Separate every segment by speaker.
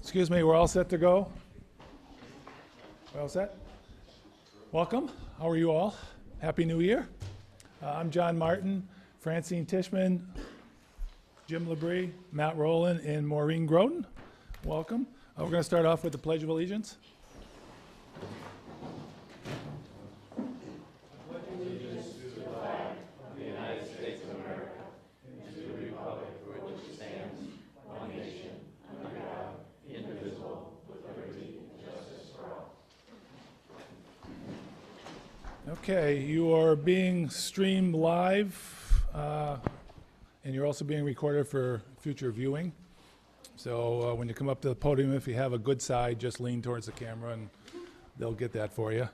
Speaker 1: Excuse me, we're all set to go? We're all set? Welcome. How are you all? Happy New Year. Uh, I'm John Martin, Francine Tishman, Jim Labrie, Matt Rowland, and Maureen Groden. Welcome. Uh, We're going to start off with the Pledge of Allegiance. Okay, you are being streamed live, uh, and you're also being recorded for future viewing. So uh, when you come up to the podium, if you have a good side, just lean towards the camera, and they'll get that for you.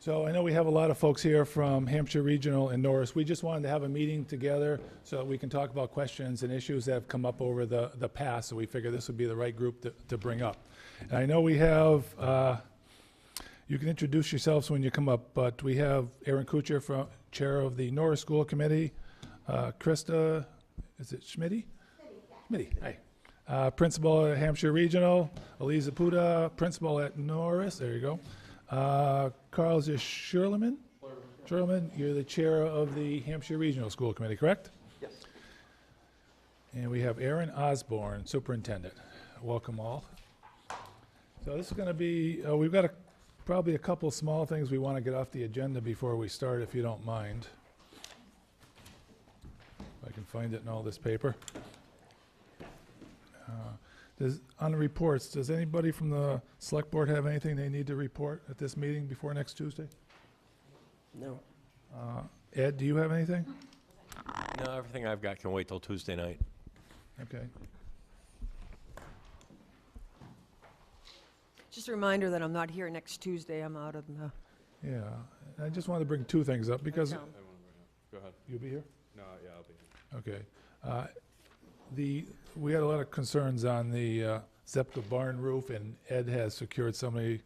Speaker 1: So I know we have a lot of folks here from Hampshire Regional and Norris. We just wanted to have a meeting together so that we can talk about questions and issues that have come up over the, the past, so we figure this would be the right group to, to bring up. And I know we have uh, you can introduce yourselves when you come up, but we have Aaron Kuchar, from, Chair of the Norris School Committee, uh, Krista, is it Schmitty? Schmitty, hi. Uh, Principal at Hampshire Regional, Eliza Puda, Principal at Norris, there you go. Uh, Carl Sherman? Sherman, you're the Chair of the Hampshire Regional School Committee, correct?
Speaker 2: Yes.
Speaker 1: And we have Aaron Osborne, Superintendent. Welcome all. So this is going to be, uh, we've got a- probably a couple small things we want to get off the agenda before we start, if you don't mind. If I can find it in all this paper. Uh, does- On the reports, does anybody from the Select Board have anything they need to report at this meeting before next Tuesday?
Speaker 2: No.
Speaker 1: Uh, Ed, do you have anything?
Speaker 3: No, everything I've got can wait till Tuesday night.
Speaker 1: Okay.
Speaker 4: Just a reminder that I'm not here next Tuesday, I'm out of the
Speaker 1: Yeah, I just wanted to bring two things up because.
Speaker 4: town.
Speaker 5: Go ahead.
Speaker 1: You'll be here?
Speaker 5: No, yeah, I'll be here.
Speaker 1: Okay. Uh, The, we had a lot of concerns on the uh, Zepka barn roof, and Ed has secured somebody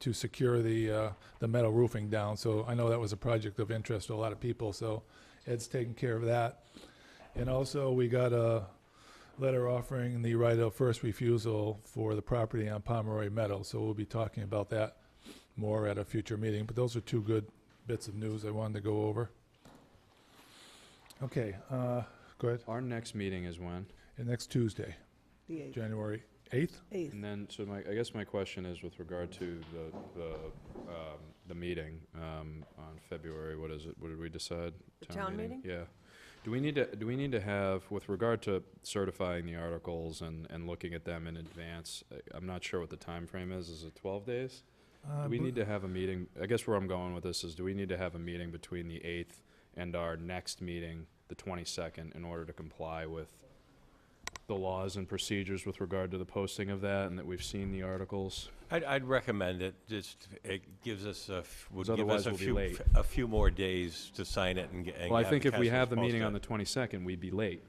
Speaker 1: to secure the, uh, the metal roofing down. So I know that was a project of interest to a lot of people, so Ed's taking care of that. And also, we got a letter offering the right of first refusal for the property on Pomeroy Meadow. So we'll be talking about that more at a future meeting, but those are two good bits of news I wanted to go over. Okay, uh, go ahead.
Speaker 5: Our next meeting is when?
Speaker 1: And next Tuesday,
Speaker 4: the
Speaker 1: January 8th?
Speaker 4: 8th.
Speaker 5: And then, so my, I guess my question is with regard to the, the, um, the meeting, um, on February, what is it, what did we decide?
Speaker 4: The town meeting?
Speaker 5: Yeah. Do we need to, do we need to have, with regard to certifying the articles and, and looking at them in advance, I- I'm not sure what the time frame is, is it twelve days? Do
Speaker 1: Uh,
Speaker 5: we need to have a meeting, I guess where I'm going with this is, do we need to have a meeting between the eighth and our next meeting, the twenty-second, in order to comply with the laws and procedures with regard to the posting of that, and that we've seen the articles?
Speaker 3: I'd, I'd recommend it, just, it gives us a, f- would
Speaker 5: 'Cause
Speaker 3: give us
Speaker 5: otherwise
Speaker 3: a
Speaker 5: we'll be
Speaker 3: few,
Speaker 5: late.
Speaker 3: f- a few more days to sign it and get. and
Speaker 5: Well, I
Speaker 3: have
Speaker 5: think if we
Speaker 3: council
Speaker 5: have the
Speaker 3: post
Speaker 5: meeting
Speaker 3: it.
Speaker 5: on the twenty-second, we'd be late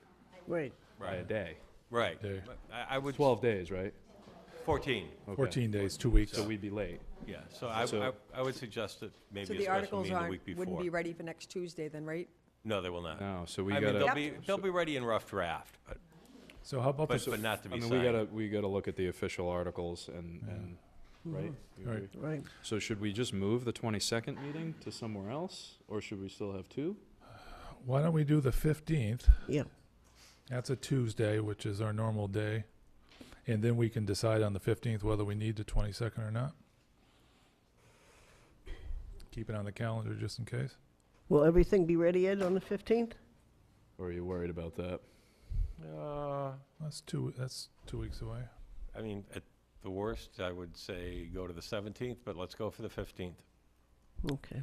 Speaker 2: Right.
Speaker 5: by a
Speaker 3: Right,
Speaker 5: day.
Speaker 3: Right,
Speaker 1: Day.
Speaker 3: But I, I would,
Speaker 5: Twelve days, right?
Speaker 3: fourteen,
Speaker 5: Okay.
Speaker 1: 14 days, two weeks.
Speaker 5: So we'd be late.
Speaker 3: yeah, so I,
Speaker 5: So-
Speaker 3: I, I would suggest that
Speaker 4: So
Speaker 3: maybe a
Speaker 4: the
Speaker 3: special
Speaker 4: articles
Speaker 3: meeting the
Speaker 4: aren't,
Speaker 3: week
Speaker 4: wouldn't
Speaker 3: before.
Speaker 4: be ready for next Tuesday then, right?
Speaker 3: No, they will not.
Speaker 5: No, so we
Speaker 3: Uh, I mean,
Speaker 5: gotta,
Speaker 3: they'll
Speaker 4: Yep.
Speaker 3: be, they'll be ready in rough draft, but,
Speaker 1: So how about
Speaker 3: but,
Speaker 1: this,
Speaker 3: but not to
Speaker 5: I
Speaker 3: be
Speaker 5: mean, we
Speaker 3: signed.
Speaker 5: gotta, we gotta look at the official articles and, and, right? You
Speaker 1: Right.
Speaker 5: agree?
Speaker 2: Right.
Speaker 5: So should we just move the twenty-second meeting to somewhere else, or should we still have two?
Speaker 1: why don't we do the 15th?
Speaker 2: Yeah.
Speaker 1: That's a Tuesday, which is our normal day. And then we can decide on the 15th whether we need the 22nd or not. Keep it on the calendar just in case.
Speaker 2: Will everything be ready, Ed, on the 15th?
Speaker 5: Or are you worried about that?
Speaker 3: Uh,
Speaker 1: That's two, that's two weeks away.
Speaker 3: I mean, at the worst, I would say go to the seventeenth, but let's go for the fifteenth.
Speaker 2: Okay.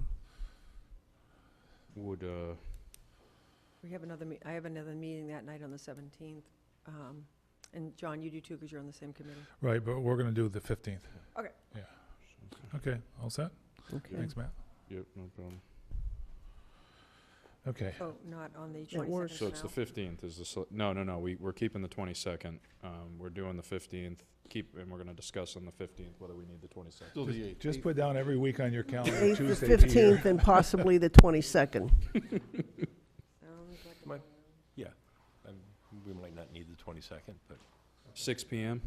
Speaker 5: Would, uh,
Speaker 4: We have another, me- I have another meeting that night on the 17th. Um, And John, you do too, because you're on the same committee.
Speaker 1: Right, but we're going to do the 15th.
Speaker 4: Okay.
Speaker 1: Yeah. Okay, all set?
Speaker 2: Okay.
Speaker 1: Thanks, Matt.
Speaker 5: yep, no problem.
Speaker 1: Okay.
Speaker 4: Oh, not on the
Speaker 2: That works.
Speaker 4: 22nd
Speaker 5: So it's the
Speaker 4: now.
Speaker 5: fifteenth is the, sele- no, no, no, we, we're keeping the twenty-second, um, we're doing the fifteenth, keep, and we're gonna discuss on the fifteenth whether we need the twenty-second.
Speaker 1: Just- Just put down every week on your calendar,
Speaker 2: 8th, the
Speaker 1: Tuesday be here.
Speaker 2: 15th, and possibly the 22nd.
Speaker 4: Sounds like a
Speaker 3: My- Yeah, um, we might not need the twenty-second, but
Speaker 5: Six PM?